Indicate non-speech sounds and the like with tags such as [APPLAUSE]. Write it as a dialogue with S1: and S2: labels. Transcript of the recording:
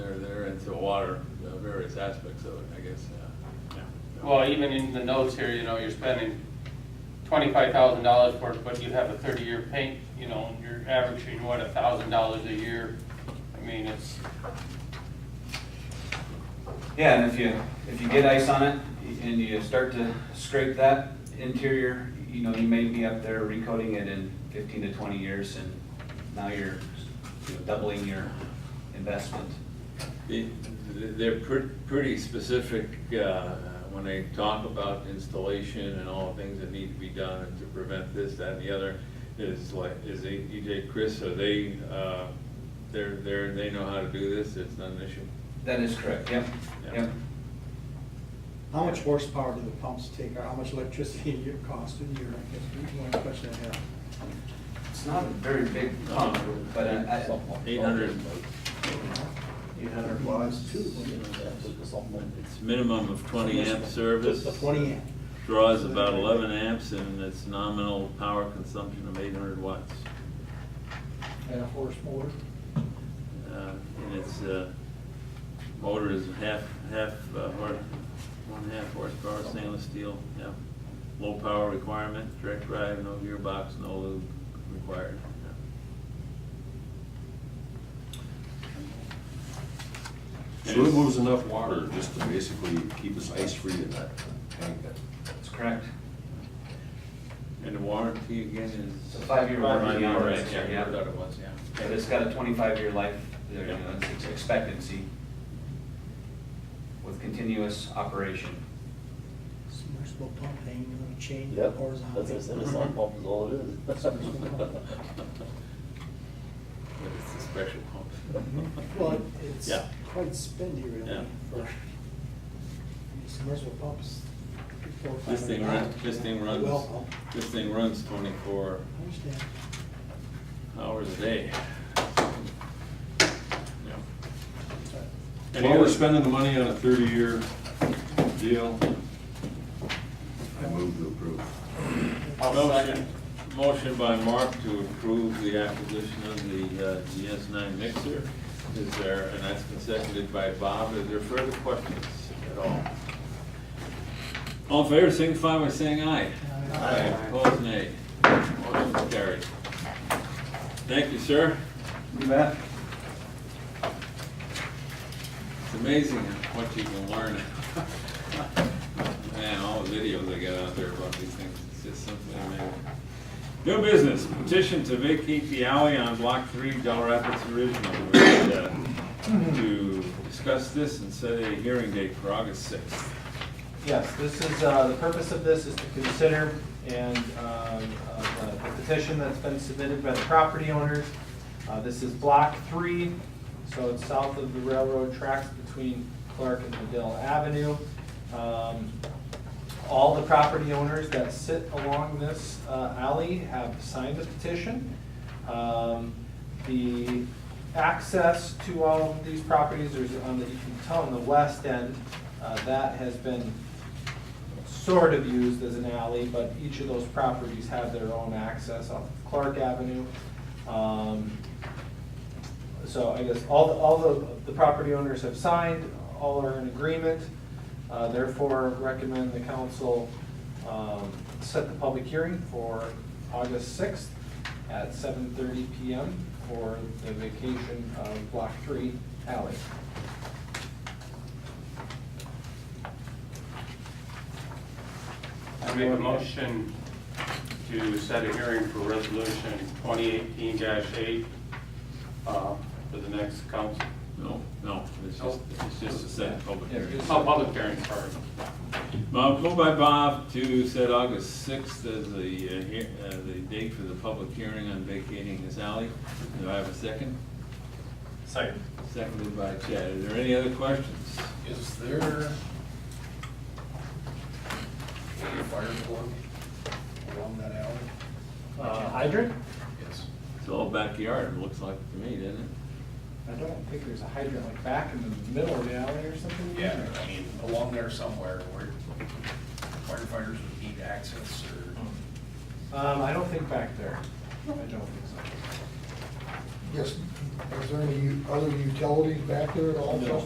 S1: water, uh, various aspects of it, I guess, uh, yeah.
S2: Well, even in the notes here, you know, you're spending twenty-five thousand dollars for it, but you have a thirty-year paint, you know, and you're averaging, what, a thousand dollars a year? I mean, it's,
S3: Yeah, and if you, if you get ice on it and you start to scrape that interior, you know, you may be up there recoating it in fifteen to twenty years and now you're you know, doubling your investment.
S1: The- They're pre- pretty specific uh, when they talk about installation and all the things that need to be done and to prevent this, that, and the other. Is like, is they- EJ Chris, are they, uh, they're, they're, they know how to do this, it's not an issue?
S3: That is correct, yep,
S1: Yeah.
S3: yep.
S4: How much horsepower do the pumps take, or how much electricity [LAUGHS] do it cost a year? I guess One question I have.
S3: It's not a very big pump, but I, I-
S1: Eight hundred,
S4: Eight hundred watts, two.
S1: it's minimum of twenty amp service.
S4: Twenty amp.
S1: Draws about eleven amps and it's nominal power consumption of eight hundred watts.
S4: And a horse motor.
S1: Uh, And its uh, motor is half, half, uh, hor- one half horsepower stainless steel, yeah. Low power requirement, direct drive, no gearbox, no lube required. yeah.
S5: So it moves enough water just to basically keep us ice-free in that tank then?
S3: that's correct.
S1: And the warranty again is?
S3: It's a five-year warranty on it.
S1: Right, yeah,
S3: Yeah.
S1: I thought it was, yeah.
S3: But it's got a twenty-five year life, there, you know, it's expectancy with continuous operation.
S4: Submersible pump hanging on a chain
S6: Yep,
S4: horizontally.
S6: that's a Renaissance pump is all it
S1: [LAUGHS]
S6: is.
S1: But it's a special pump.
S4: Mm-hmm. Well, it's
S1: Yeah.
S4: quite spendy really
S1: Yeah.
S4: for submersible pumps. four or five
S1: This thing
S4: hundred
S1: runs,
S4: pounds.
S1: this thing
S4: Well,
S1: runs,
S4: pump.
S1: this thing runs twenty-four
S4: I understand.
S1: hours a day. Yeah.
S5: While we're spending the money on a thirty-year deal, I move to approve.
S1: Motion, motion by Mark to approve the acquisition of the uh, GS9 mixer. Is there, and that's been seconded by Bob. Is there further questions at all? All in favor, signify by saying aye.
S4: Aye.
S1: Opposed, nay. Motion carried. Thank you, sir.
S3: You bet.
S1: It's amazing what you can learn. [LAUGHS] Man, all the videos I got out there about these things, it's just simply amazing. New business, petition to vacate the alley on block three, Del Rapids Original. We're going to- To discuss this and set a hearing date for August sixth.
S7: Yes, this is, uh, the purpose of this is to consider and, um, uh, the petition that's been submitted by the property owners. Uh, This is block three, so it's south of the railroad tracks between Clark and Medill Avenue. Um, all the property owners that sit along this uh, alley have signed the petition. Um, The access to all of these properties, there's, on the, you can tell on the west end, uh, that has been sort of used as an alley, but each of those properties have their own access off of Clark Avenue. Um, so I guess all, the- all the, the property owners have signed, all are in agreement, uh, therefore recommend the council, um, set the public hearing for August sixth at seven thirty PM for the vacation of block three alley.
S2: I make a motion to set a hearing for resolution twenty eighteen eight, uh, for the next council,
S1: No, no, it's just, it's just a set public
S7: Yeah,
S1: hearing.
S7: it's-
S2: oh, public hearing, sorry.
S1: Bob, moved by Bob to set August sixth as the, uh, hea- uh, the date for the public hearing on vacating this alley. Do I have a second?
S7: Second.
S1: Seconded by Chad. Is there any other questions?
S8: Is there a fire plug along that alley?
S7: Uh, hydrant?
S8: Yes.
S1: It's all backyard, it looks like to me, doesn't it?
S7: I don't think there's a hydrant like back in the middle of the alley or something.
S8: Yeah, I mean, along there somewhere where firefighters would need access or.
S7: Um, I don't think back there, I don't think so.
S9: Yes, is there any u- other utilities back there at all?
S7: No.